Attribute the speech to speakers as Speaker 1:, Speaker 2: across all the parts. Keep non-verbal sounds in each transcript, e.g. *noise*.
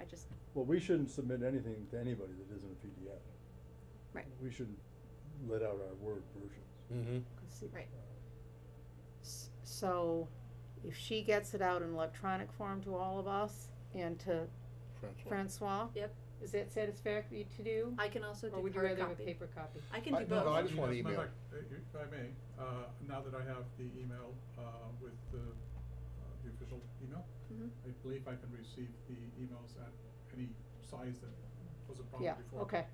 Speaker 1: I just,
Speaker 2: Well, we shouldn't submit anything to anybody that isn't a PDF.
Speaker 1: Right.
Speaker 2: We shouldn't let out our word versions.
Speaker 3: Mm-hmm.
Speaker 1: right,
Speaker 4: S- So, if she gets it out in electronic form to all of us and to Francois?
Speaker 1: Yep.
Speaker 4: Is that satisfactory to do?
Speaker 1: I can also
Speaker 4: Or
Speaker 1: do
Speaker 4: would you
Speaker 1: hard
Speaker 4: rather have a
Speaker 1: copy.
Speaker 4: paper copy?
Speaker 1: I can do
Speaker 3: I- no, no, I
Speaker 1: both,
Speaker 3: just want
Speaker 5: Yes, matter
Speaker 3: email.
Speaker 5: of fact, i- If I may, uh, now that I have the email, uh, with the, uh, the official email,
Speaker 1: Mhm.
Speaker 5: I believe I can receive the emails at any size that was a problem
Speaker 4: Yeah,
Speaker 5: before.
Speaker 4: okay.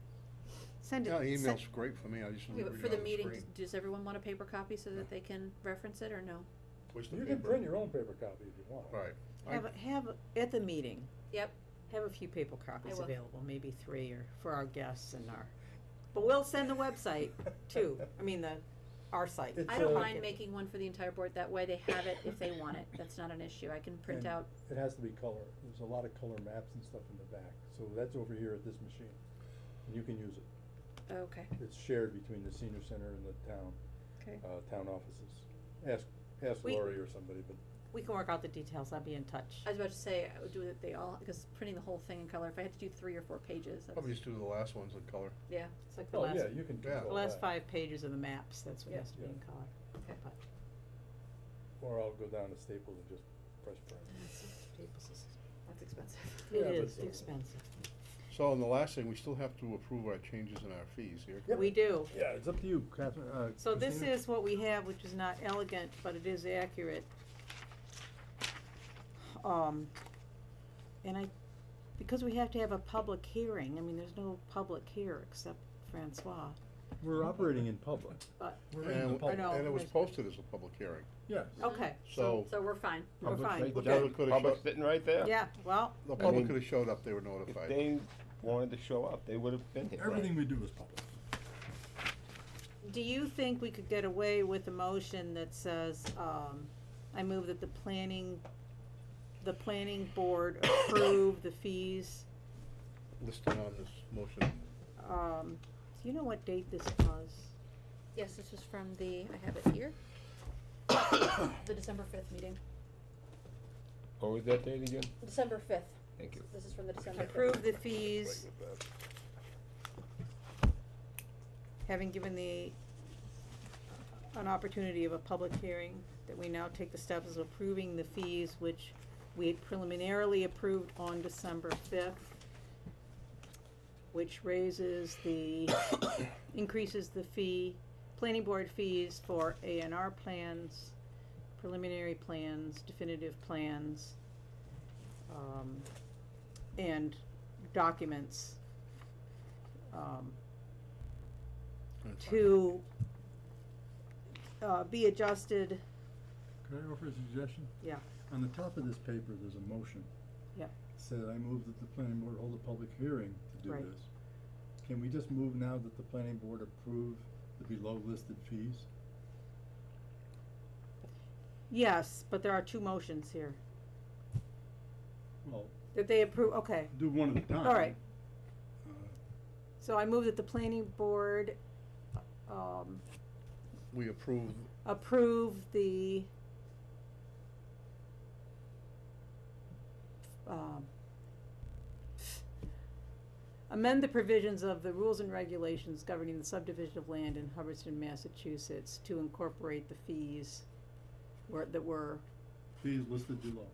Speaker 4: Send it.
Speaker 3: Yeah,
Speaker 4: send-
Speaker 3: email's great for me, I just
Speaker 1: Okay,
Speaker 3: read it on
Speaker 1: but for
Speaker 3: the
Speaker 1: the
Speaker 3: screen.
Speaker 1: meeting, does- does everyone want a paper copy so that they can reference it or no?
Speaker 3: Where's the
Speaker 2: You can
Speaker 3: paper?
Speaker 2: print your own paper copy if you want.
Speaker 3: Right. I-
Speaker 4: Have, a- have, a- at the meeting.
Speaker 1: Yep.
Speaker 4: Have a few paper copies
Speaker 1: will.
Speaker 4: available, maybe three or, for our guests and our, but we'll send the website too, I mean the, our site.
Speaker 2: It's
Speaker 1: I
Speaker 2: So-
Speaker 1: don't
Speaker 3: uh,
Speaker 1: mind making one for the entire board, that way they have it if they want it, that's not an issue, I can
Speaker 3: *laughs*
Speaker 1: print
Speaker 2: And-
Speaker 1: out,
Speaker 2: It has to be color. There's a lot of color maps and stuff in the back, so that's over here at this machine. And you can use it.
Speaker 1: Oh, okay,
Speaker 2: It's shared between the senior center and the town,
Speaker 1: okay.
Speaker 2: uh, town offices. Ask, ask
Speaker 4: We-
Speaker 2: Lori or somebody, but
Speaker 4: We can work out the details, I'll be in touch.
Speaker 1: I was about to say, I would do it, they all, because printing the whole thing in color, if I had to do three or four pages, that's,
Speaker 3: Probably just do the last ones in color.
Speaker 1: yeah,
Speaker 4: It's like the
Speaker 2: Oh,
Speaker 4: last,
Speaker 2: yeah, you can
Speaker 3: Yeah.
Speaker 2: control
Speaker 4: the
Speaker 2: that.
Speaker 4: last five pages of the maps, that's what
Speaker 1: Yeah.
Speaker 4: has to be in color.
Speaker 1: Okay.
Speaker 4: But
Speaker 2: Or I'll go down to Staples and just press print.
Speaker 1: that's expensive.
Speaker 2: Yeah, but
Speaker 4: It is
Speaker 2: so-
Speaker 4: expensive,
Speaker 3: So, and the last thing, we still have to approve our changes in our fees here.
Speaker 2: Yep.
Speaker 4: we do.
Speaker 2: Yeah, it's up to you, Catherine, uh,
Speaker 4: So this
Speaker 2: Christina?
Speaker 4: is what we have, which is not elegant, but it is accurate. Um, and I, because we have to have a public hearing, I mean, there's no public here except Francois.
Speaker 2: We're operating in public.
Speaker 4: But-
Speaker 2: We're in the
Speaker 3: And-
Speaker 2: public.
Speaker 4: know.
Speaker 3: And it was
Speaker 4: There's-
Speaker 3: posted as a public hearing,
Speaker 2: Yes.
Speaker 4: Okay,
Speaker 3: so
Speaker 1: So we're fine,
Speaker 4: we're
Speaker 2: Public
Speaker 4: fine,
Speaker 2: safety.
Speaker 3: the
Speaker 4: we're good.
Speaker 3: public could have
Speaker 6: Public
Speaker 3: showed,
Speaker 6: sitting right there.
Speaker 4: Yeah, well,
Speaker 3: the
Speaker 6: I
Speaker 3: public
Speaker 6: mean,
Speaker 3: could have showed up, they were
Speaker 6: If
Speaker 3: notified.
Speaker 6: they wanted to show up, they would have been here.
Speaker 2: Everything we do is public.
Speaker 4: do you think we could get away with a motion that says, um, I move that the planning, the planning board approve the fees?
Speaker 3: Listed on this motion,
Speaker 4: Um, do you know what date this was?
Speaker 1: yes, this was from the, I have it
Speaker 3: *coughs*
Speaker 1: here, the December fifth meeting,
Speaker 6: What was that date again?
Speaker 1: December fifth,
Speaker 6: Thank you.
Speaker 1: this is from the December fifth.
Speaker 4: approve the fees, having given the, an opportunity of a public hearing, that we now take the steps of approving the fees which we had preliminarily approved on December fifth, which raises the, increases the fee, planning board fees for A and R plans, preliminary plans, definitive plans, um, and documents um,
Speaker 3: and
Speaker 4: to uh, be adjusted,
Speaker 2: Could I offer a suggestion?
Speaker 4: Yeah.
Speaker 2: On the top of this paper, there's a motion.
Speaker 4: Yeah.
Speaker 2: Said I move that the planning board hold a public hearing to do
Speaker 4: Right.
Speaker 2: this. Can we just move now that the planning board approve the below listed fees?
Speaker 4: yes, but there are two motions here.
Speaker 2: Well,
Speaker 4: That they approve, okay.
Speaker 2: do one at a time.
Speaker 4: All right.
Speaker 2: Uh,
Speaker 4: So I move that the planning board um,
Speaker 3: We approve
Speaker 4: approve the um, amend the provisions of the rules and regulations governing the subdivision of land in Hubbardston, Massachusetts to incorporate the fees were, that were,
Speaker 2: Fees listed below.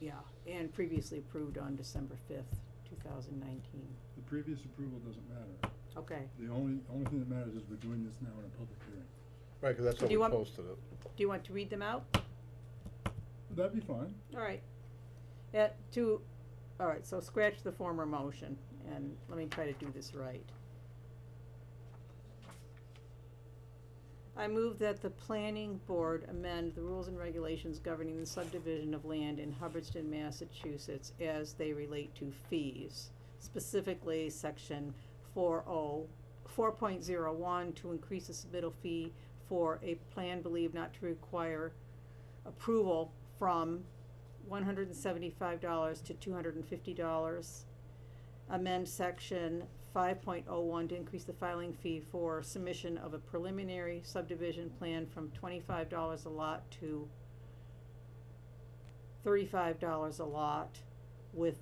Speaker 4: yeah, and previously approved on December fifth, two thousand nineteen.
Speaker 2: The previous approval doesn't matter.
Speaker 4: Okay,
Speaker 2: The only, only thing that matters is we're doing this now in a public hearing.
Speaker 3: Right, 'cause that's
Speaker 4: Do
Speaker 3: how we
Speaker 4: you want-
Speaker 3: posted it.
Speaker 4: do you want to read them out?
Speaker 2: Would that be fine?
Speaker 4: All right. Yeah, to, all right, so scratch the former motion, and let me try to do this right. I move that the planning board amend the rules and regulations governing the subdivision of land in Hubbardston, Massachusetts as they relate to fees, specifically section four oh, four point zero one, to increase the submittal fee for a plan believed not to require approval from one hundred and seventy-five dollars to two hundred and fifty dollars. Amend section five point oh one to increase the filing fee for submission of a preliminary subdivision plan from twenty-five dollars a lot to thirty-five dollars a lot with